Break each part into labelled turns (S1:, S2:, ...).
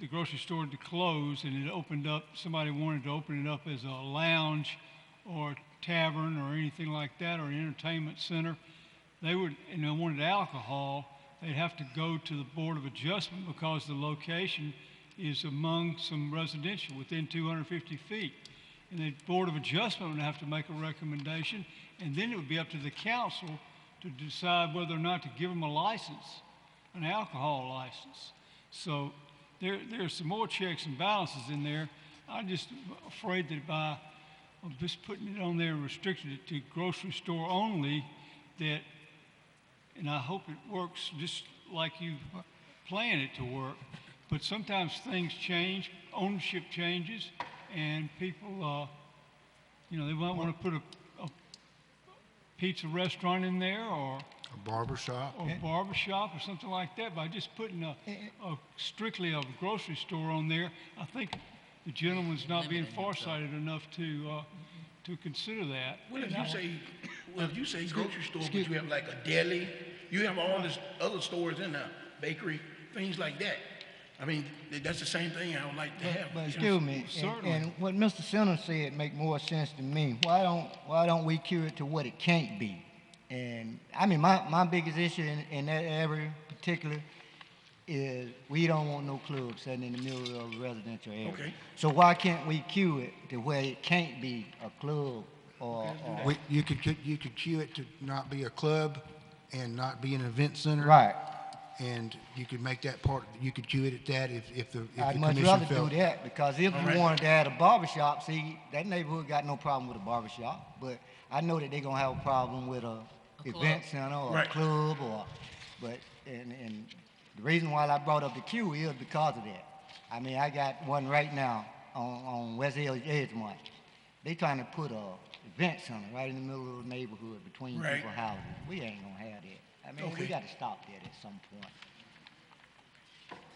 S1: the grocery store to close and it opened up, somebody wanted to open it up as a lounge or tavern or anything like that, or an entertainment center, they would, and they wanted alcohol, they'd have to go to the Board of Adjustment because the location is among some residential, within 250 feet. And the Board of Adjustment would have to make a recommendation, and then it would be up to the council to decide whether or not to give them a license, an alcohol license. So there, there are some more checks and balances in there. I'm just afraid that by of just putting it on there, restricted it to grocery store only, that, and I hope it works just like you plan it to work, but sometimes things change, ownership changes, and people, uh, you know, they might want to put a, a pizza restaurant in there, or,
S2: a barber shop.
S1: or barber shop, or something like that, by just putting a,
S2: Eh,
S1: a strictly a grocery store on there, I think the gentleman's not being farsighted enough to, uh, to consider that.
S3: Well, if you say, well, if you say grocery store, but you have like a deli, you have all this other stores in there, bakery, things like that. I mean, th- that's the same thing I would like to have.
S4: But
S3: you know.
S4: excuse me, and,
S1: certainly.
S4: and what Mr. Center said make more sense to me. Why don't, why don't we cure it to what it can't be? And, I mean, my, my biggest issue in, in that area particular is we don't want no club sitting in the middle of a residential area.
S3: Okay.
S4: So why can't we cure it to where it can't be a club or, or,
S2: We, you could, cu- you could cue it to not be a club and not be an event center.
S4: right?
S2: And you could make that part, you could cue it at that if, if the, if the
S4: I'd
S2: commission
S4: much rather do
S2: felt-
S4: that, because if
S3: Alright.
S4: you wanted to add a barber shop, see, that neighborhood got no problem with a barber shop, but I know that they gonna have a problem with a event center or a
S3: Right.
S4: club or, but, and, and the reason why I brought up the queue is because of that. I mean, I got one right now on, on West Hill Edgemont. They trying to put a event center right in the middle of the neighborhood between
S3: Right.
S4: people houses. We ain't gonna have that. I mean, we
S3: Okay.
S4: gotta stop that at some point.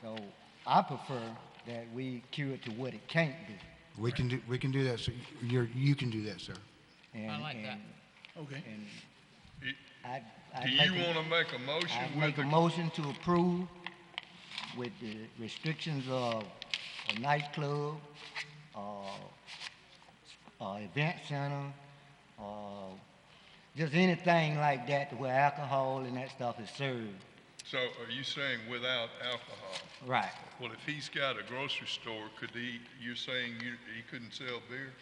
S4: So I prefer that we cue it to what it can't be.
S2: We can do, we can do that, so you're, you can do that, sir.
S4: And,
S5: I like that.
S4: and-
S3: Okay.
S4: And
S6: Do
S4: I, I
S6: do
S4: make,
S6: you want
S4: a-
S6: to make a
S4: I'd
S6: motion
S4: make
S6: with
S4: a
S6: the,
S4: motion to approve with the restrictions of a nightclub, uh, uh, event center, uh, just anything like that to where alcohol and that stuff is served.
S6: so are you saying without alcohol?
S4: Right.
S6: Well, if he's got a grocery store, could he, you're saying you, he couldn't sell beer?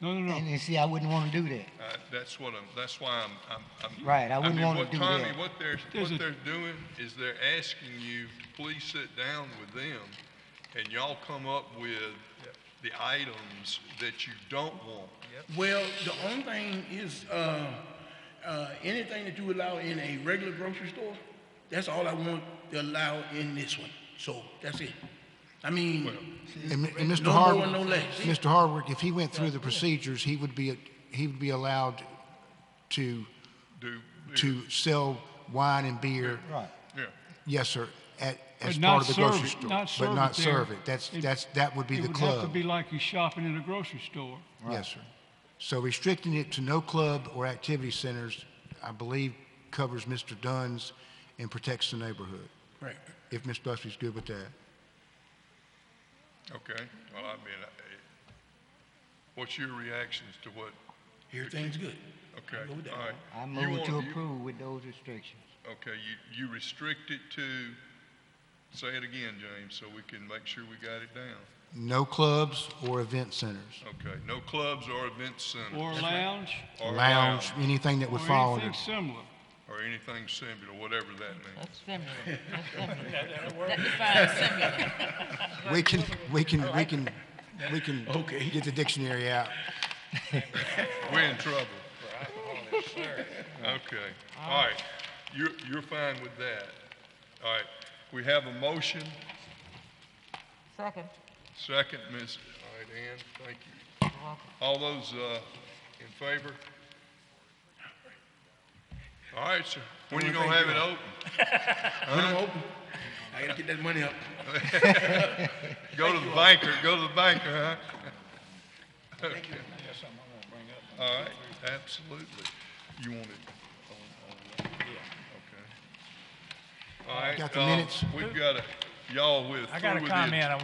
S1: No, no, no.
S4: And, and see, I wouldn't wanna do that.
S6: Uh, that's what I'm, that's why I'm, I'm- I'm.
S4: Right, I wouldn't
S6: mean,
S4: wanna
S6: what
S4: do
S6: Tommy,
S4: that.
S6: What they're,
S1: There's a-
S6: what they're doing is they're asking you to please sit down with them and y'all come up with the items that you don't want.
S3: Well, the only thing is, uh, uh, anything that you allow in a regular grocery store, that's all I want to allow in this one. So that's it. I mean,
S2: And, and Mr.
S3: No more,
S2: Harwick,
S3: no less.
S2: Mr. Harwick, if he went through the procedures, he would be, he would be allowed to,
S6: Do, beer.
S2: to sell wine and beer.
S4: Right.
S6: yeah,
S2: Yes, sir, at, as
S1: But
S2: part
S1: not
S2: of the
S1: serve
S2: grocery
S1: it-
S2: store.
S1: not serve
S2: But
S1: it
S2: not
S1: there.
S2: serve it. That's,
S1: It-
S2: that's, that would be the
S1: It would have to
S2: club.
S1: be like you shopping in a grocery store.
S2: Yes, sir. So restricting it to no club or activity centers, I believe, covers Mr. Dunn's and protects the neighborhood,
S3: right.
S2: if Ms. Busby's good with that.
S6: okay, well, I mean, I- eh, what's your reactions to what,
S3: Everything's good.
S6: okay,
S3: Go with that.
S6: all right.
S4: I
S6: You
S4: move
S6: want-
S4: to
S6: you-
S4: approve with those restrictions.
S6: Okay, you, you restrict it to, say it again, James, so we can make sure we got it down.
S2: No clubs or event centers,
S6: Okay, no clubs or event centers.
S1: Or a lounge,
S6: Or uh,
S2: lounge,
S6: lounge,
S2: anything that would
S1: or
S2: fall
S1: anything
S2: under.
S1: similar.
S6: Or anything similar, whatever that means.
S5: That's feminine. That's feminine. That defines feminine.
S2: We can, we can, we can, we can
S3: Okay.
S2: get the dictionary out.
S6: We're in trouble. Okay, all right, you're, you're fine with that. All right, we have a motion,
S5: Second.
S6: second, Ms., all right, Ann, thank you. All those, uh, in favor? All right, sir, when you gonna have it open?
S3: When I'm open, I gotta get that money up.
S6: Go to the banker, go to the banker, huh? Okay. All right, absolutely. You want it on, on, okay. All right.
S2: Got the
S6: um,
S2: minutes?
S6: We've got a, y'all with.
S7: I got a
S6: through with the-
S7: comment I